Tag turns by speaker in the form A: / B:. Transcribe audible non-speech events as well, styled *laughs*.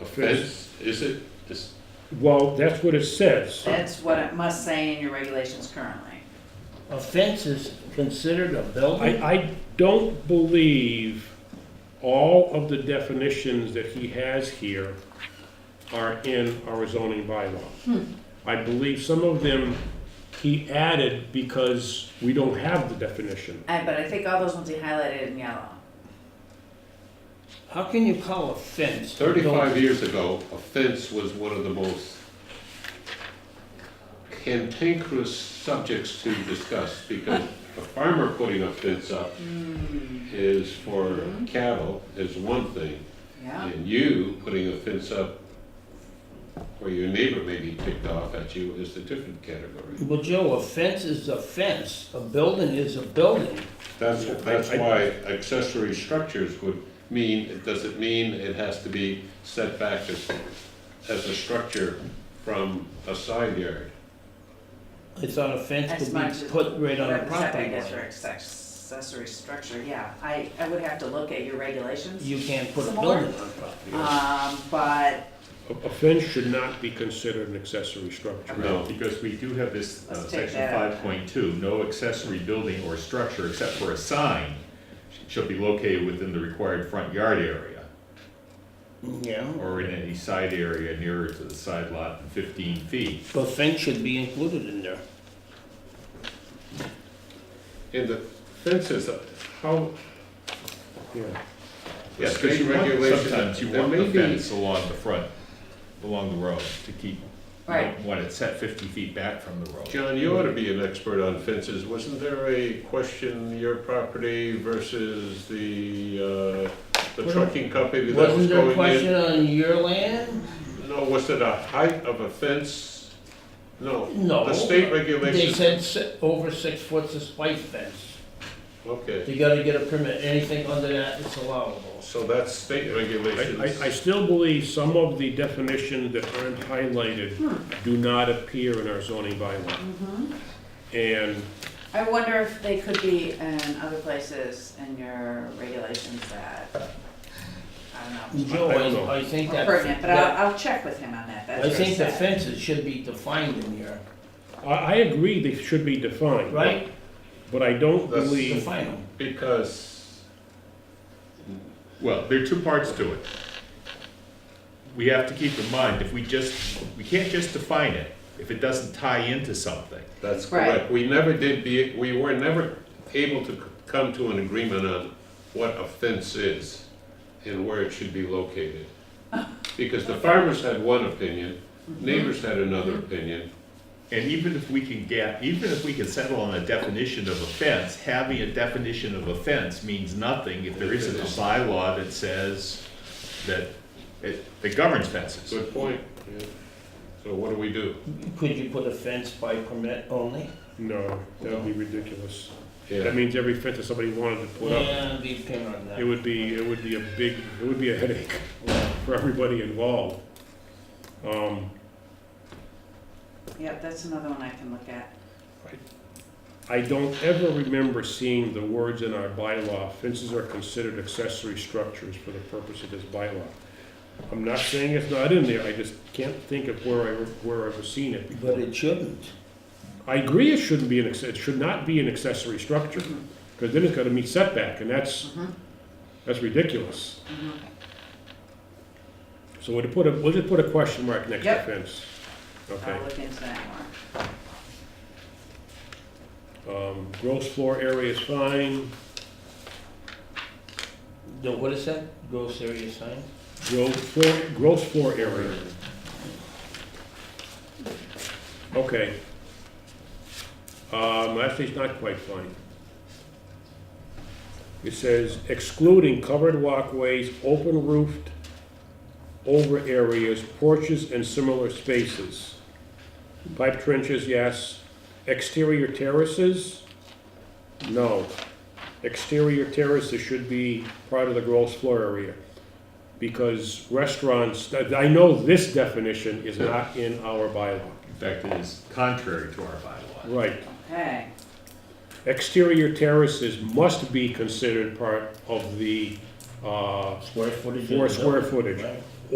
A: a fence, is it? This-
B: Well, that's what it says.
C: That's what it must say in your regulations currently.
D: A fence is considered a
B: I,
D: building?
B: I don't believe all of the definitions that he has here are in our zoning bylaw. I believe some of them he added because we don't have the definition.
C: I, but I think all those ones he highlighted in yellow.
D: How can you call a fence? a
A: Thirty-five
D: building?
A: years ago, a fence was one of the most cantankerous subjects to discuss because a farmer putting a fence up is for cattle, is one thing.
C: Yeah,
A: And you putting a fence up where your neighbor may be ticked off at you is a different category.
D: Well, Joe, a fence is a fence, a building is a building.
A: That's, that's why accessory structures would mean, does it mean it has to be set back as, as a structure from a side yard?
D: I thought a fence
C: as
D: could
C: much as.
D: be put right on the
C: whatever setback
D: property
C: is for
D: line.
C: access- Accessory structure, yeah, I, I would have to look at your regulations.
D: You can't put a
C: Some more?
D: building on property. line.
C: Um, but
B: A a fence should not be considered an accessory structure.
E: No, because we do have this, uh,
C: Let's take
E: section
C: that out.
E: five point two, no accessory building or structure except for a sign shall be located within the required front yard area
D: Yeah,
E: or in any side area nearer to the side lot than fifteen feet.
D: but fence should be included in there.
A: And the fences, how,
B: Yeah.
A: the
E: Yes, because
A: state
E: you want,
A: regulation,
E: sometimes you
A: there
E: want
A: may
E: the
A: be,
E: fence along the front, along the road to keep, you
C: Right.
E: don't want it set fifty feet back from the road.
A: John, you ought to be an expert on fences. Wasn't there a question, your property versus the, uh, the
D: Wasn't-
A: trucking company that was going in?
D: Wasn't there a question on your land?
A: No, was it a height of a fence? No.
D: No.
A: The state
D: Oh. They
A: regulations.
D: said si- over six foot's a spike fence.
A: Okay,
D: You gotta get a permit, anything under that is allowable.
A: so that's state
B: I, I- I
A: regulations.
B: still believe some of the definitions that aren't highlighted do not appear in our zoning bylaw. And
C: I wonder if they could be in other places in your regulations that, I don't know.
D: Joe,
B: I don't know.
D: I, I think
C: Or
D: that.
C: pertinent, but
D: that-
C: I'll, I'll check with him on that, that's
D: I
C: what he
D: think the
C: said.
D: fences should be defined in here,
B: I, I agree they should be defined.
D: right?
B: But I don't
A: That's
B: believe,
D: Define them.
A: Because
E: Well, there are two parts to it. We have to keep in mind, if we just, we can't just define it if it doesn't tie into something.
A: that's
C: Right.
A: correct. We never did be, we were never able to c- come to an agreement on what a fence is and where it should be located. Because the farmers had one opinion,
D: Mm-hmm.
A: neighbors had another opinion.
E: And even if we can get, even if we can settle on a definition of offense, having a definition of offense means nothing if there isn't a bylaw that says that, it- that governs fences.
A: Good point. yeah. So what do we do?
D: Could you put a fence by permit only?
B: no, that would be ridiculous. That
A: Yeah,
B: means every fence that somebody wanted to put up,
D: Yeah, be pin on
B: it
D: that.
B: would be, it would be a big, it would be a headache *laughs* for everybody involved. Um,
C: Yep, that's another one I can look at.
B: I don't ever remember seeing the words in our bylaw, fences are considered accessory structures for the purpose of this bylaw. I'm not saying it's not in there, I just can't think of where I, where I've seen it.
D: But it shouldn't.
B: I agree it shouldn't be an, acc- it should not be an accessory structure, because then it's gotta meet setback, and that's, that's ridiculous. So we'll put a, we'll just put a question mark next to
C: Yep.
B: fence. Okay.
C: I'll look into that more.
B: Um, gross floor area is fine,
D: No, what is that? Gross area sign?
B: gross floor, gross floor area. Okay. Um, actually, it's not quite fine. It says excluding covered walkways, open roofed over areas, porches and similar spaces. Pipe trenches, yes. Exterior terraces? No. Exterior terraces should be part of the gross floor area. Because restaurants, I I know this definition is not in our bylaw.
E: In fact, it is contrary to our bylaw.
B: Right.
C: Okay,
B: Exterior terraces must be considered part of the, uh,
D: Square footage? of
B: Four
D: the
B: square
D: building,
B: footage.
D: right?